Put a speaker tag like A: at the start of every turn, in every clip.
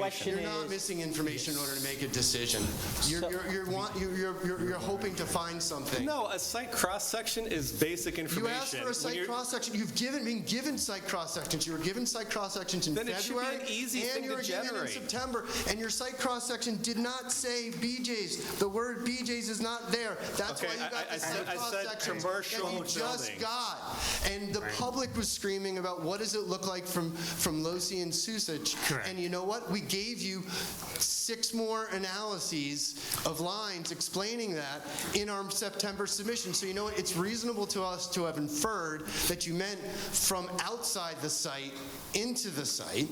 A: Question
B: You're not
A: is,
B: missing information in order to make a decision. You're,
A: So-
B: you're, you're, want, you're, you're, you're- you're hoping to find something.
C: No, a site cross-section is basic
B: You
C: information.
B: asked for a
C: When
B: site
C: you're-
B: cross-section, you've given, been given site cross-sections, you were given site cross-sections in
C: Then it should be an
B: February.
C: easy thing
B: And you
C: to
B: were given in
C: generate.
B: September, and your site cross-section did not say BJ's, the word BJ's is not there. That's
C: Okay,
B: why you
C: I-
B: got
C: I- I
B: the
C: said-
B: site
C: I said
B: cross-sections
C: commercial
B: that you just
C: building.
B: got. And the public was screaming about what does it look like from, from Losi and Susich?
D: Correct.
B: And you know what? We gave you six more analyses of lines explaining that in our September submission. So you know what? It's reasonable to us to have inferred that you meant from outside the site into the site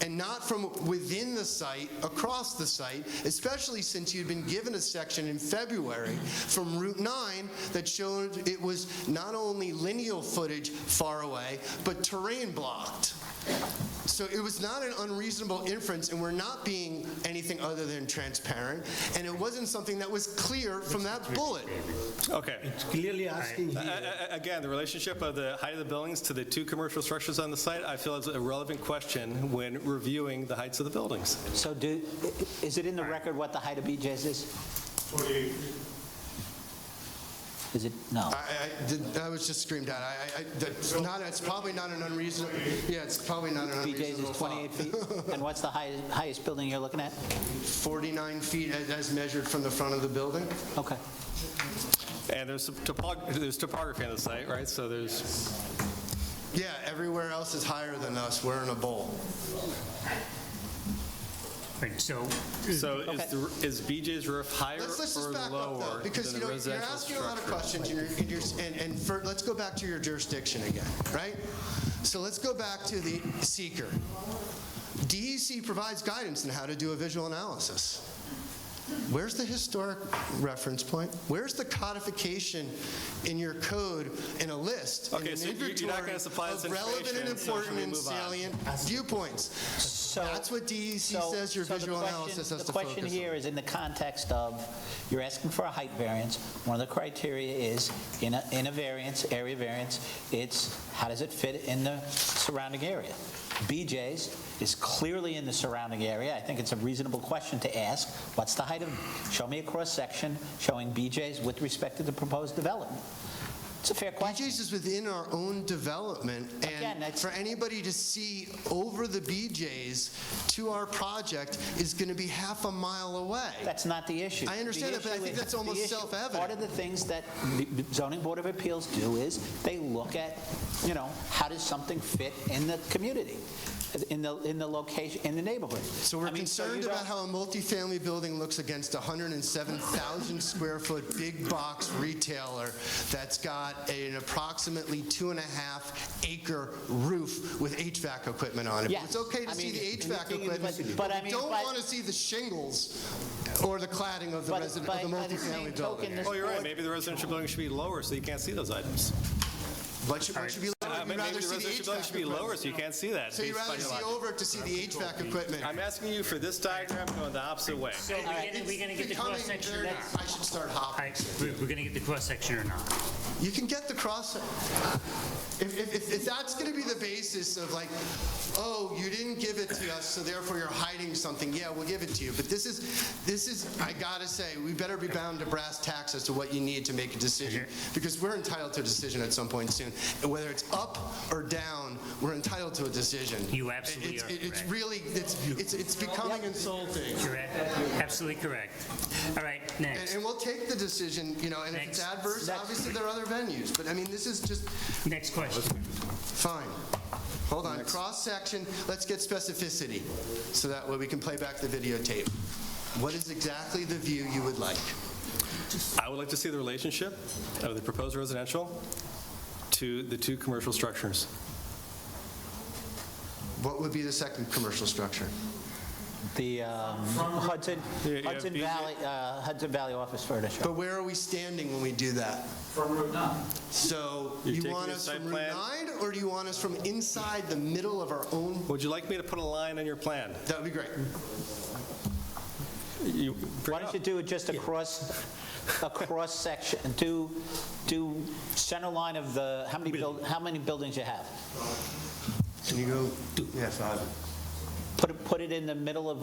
B: and not from within the site across the site, especially since you'd been given a section in February from Route 9 that showed it was not only lineal footage far away, but terrain blocked. So it was not an unreasonable inference, and we're not being anything other than transparent, and it wasn't something that was clear from that bullet.
C: Okay.
E: clearly asking
C: A-
E: here.
C: a- a- Again, the relationship of the height of the buildings to the two commercial structures on the site, I feel is a relevant question when reviewing the heights of the buildings.
A: so do, is it in the record what the height of BJ's is? Is it, no.
B: I, I, did- I was just screamed at. I, I, that's not, it's probably not an unreasonable, yeah, it's probably not an
A: BJ's
B: unreasonable
A: is 28
B: thought.
A: feet? And what's the highest, highest building you're looking at?
B: 49 feet as- as measured from the front of the building?
A: Okay.
C: And there's some topog- there's topography on the site, right? So there's,
B: Yeah, everywhere else is higher than us. We're in a bowl.
D: Right, so,
C: so is the- is BJ's roof higher
B: Let's, let's
C: or
B: just back up though,
C: lower than
B: because you
C: the
B: know, you're
C: residential
B: asking a lot of
C: structure?
B: questions and, you're, and, you're, and, and for, let's go back to your jurisdiction again, right? So let's go back to the seeker. DEC provides guidance on how to do a visual analysis. Where's the historic reference point? Where's the codification in your code in a list? in
C: Okay,
B: an
C: so you're- you're not
B: inventory
C: gonna supply
B: of
C: this
B: relevant and
C: information, so should
B: important
C: we
B: and
C: move on?
B: salient viewpoints.
A: So-
B: That's what DEC
A: so-
B: says your
A: so the
B: visual
A: question-
B: analysis has to
A: The question
B: focus on.
A: here is in the context of, you're asking for a height variance. One of the criteria is, in a, in a variance, area variance, it's how does it fit in the surrounding area? BJ's is clearly in the surrounding area. I think it's a reasonable question to ask. What's the height of, show me a cross-section showing BJ's with respect to the proposed development. It's a fair question.
B: BJ's is within our own development,
A: Again,
B: and
A: that's-
B: for anybody to see over the BJ's to our project is going to be half a mile away.
A: That's not the issue.
B: I understand
A: The
B: that, but I
A: issue
B: think
A: is-
B: that's
A: the
B: almost
A: issue-
B: self-evident.
A: Part of the things that the zoning board of appeals do is they look at, you know, how does something fit in the community, in the, in the location, in the neighborhood.
B: So we're
A: I mean, so you
B: concerned about
A: don't-
B: how a multifamily building looks against a 107,000 square foot big box retailer that's got an approximately two and a half acre roof with HVAC equipment on it.
A: Yes.
B: It's okay to
A: I
B: see
A: mean,
B: the HVAC
A: anything-
B: equipment,
A: but- but I
B: but we
A: mean,
B: don't
A: but-
B: want to see the shingles or the cladding of the
A: But-
B: resident,
A: but
B: of the
A: by the same
B: multifamily
A: token,
B: building.
A: this
C: Oh, you're right,
A: board-
C: maybe the residential building should be lower so you can't see those items.
B: What should, what should be,
C: Uh,
B: lower?
C: Maybe
B: you'd
C: the
B: rather
C: residential
B: see the
C: building
B: HVAC
C: should be
B: equipment.
C: lower so you can't see that.
B: So you'd
C: based on
B: rather
C: your
B: see
C: logic.
B: over it to see the HVAC equipment.
C: I'm asking you for this diagram going the opposite way.
D: so we're gonna- we're gonna
B: It's
D: get the
B: becoming
D: cross-section or
B: very-
D: not?
B: I should start
D: All
B: hopping.
D: right, we're we're gonna get the cross-section or not?
B: You can get the cross. If, if, if, if that's going to be the basis of like, oh, you didn't give it to us, so therefore you're hiding something. Yeah, we'll give it to you. But this is, this is. I gotta say, we better be bound to brass tacks as to what you need to make a decision,
D: Mm-hmm.
B: because we're entitled to a decision at some point soon. And whether it's up or down, we're entitled to a decision.
D: You absolutely
B: It's-
D: are
B: It's
D: correct.
B: really, it's, it's, it's becoming insulting.
D: Correct, absolutely correct. All right,
B: And,
D: next,
B: and we'll take the decision, you know, and if it's
D: Next.
B: adverse,
D: Next.
B: obviously there are other venues, but I mean, this is just,
D: next question.
B: fine. Hold on, cross-section, let's get specificity, so that way we can play back the videotape. What is exactly the view you would like?
C: I would like to see the relationship of the proposed residential to the two commercial structures.
B: What would be the second commercial structure?
A: The um, Hudson,
C: Yeah, yeah,
A: Hudson
C: BJ
A: Valley, uh, Hudson Valley office furniture.
B: But where are we standing when we do that? From Route 9. So
C: You're
B: you
C: taking
B: want
C: the
B: us
C: site
B: from Route
C: plan?
B: 9, or do you want us from inside the middle of our own?
C: Would you like me to put a line on your plan?
B: That would be great.
C: You-
A: Why don't you do it just across, across section, do, do center line of the, how many, buil- how many buildings you have?
B: Can you go? Yeah, five.
A: Put it, put it in the middle of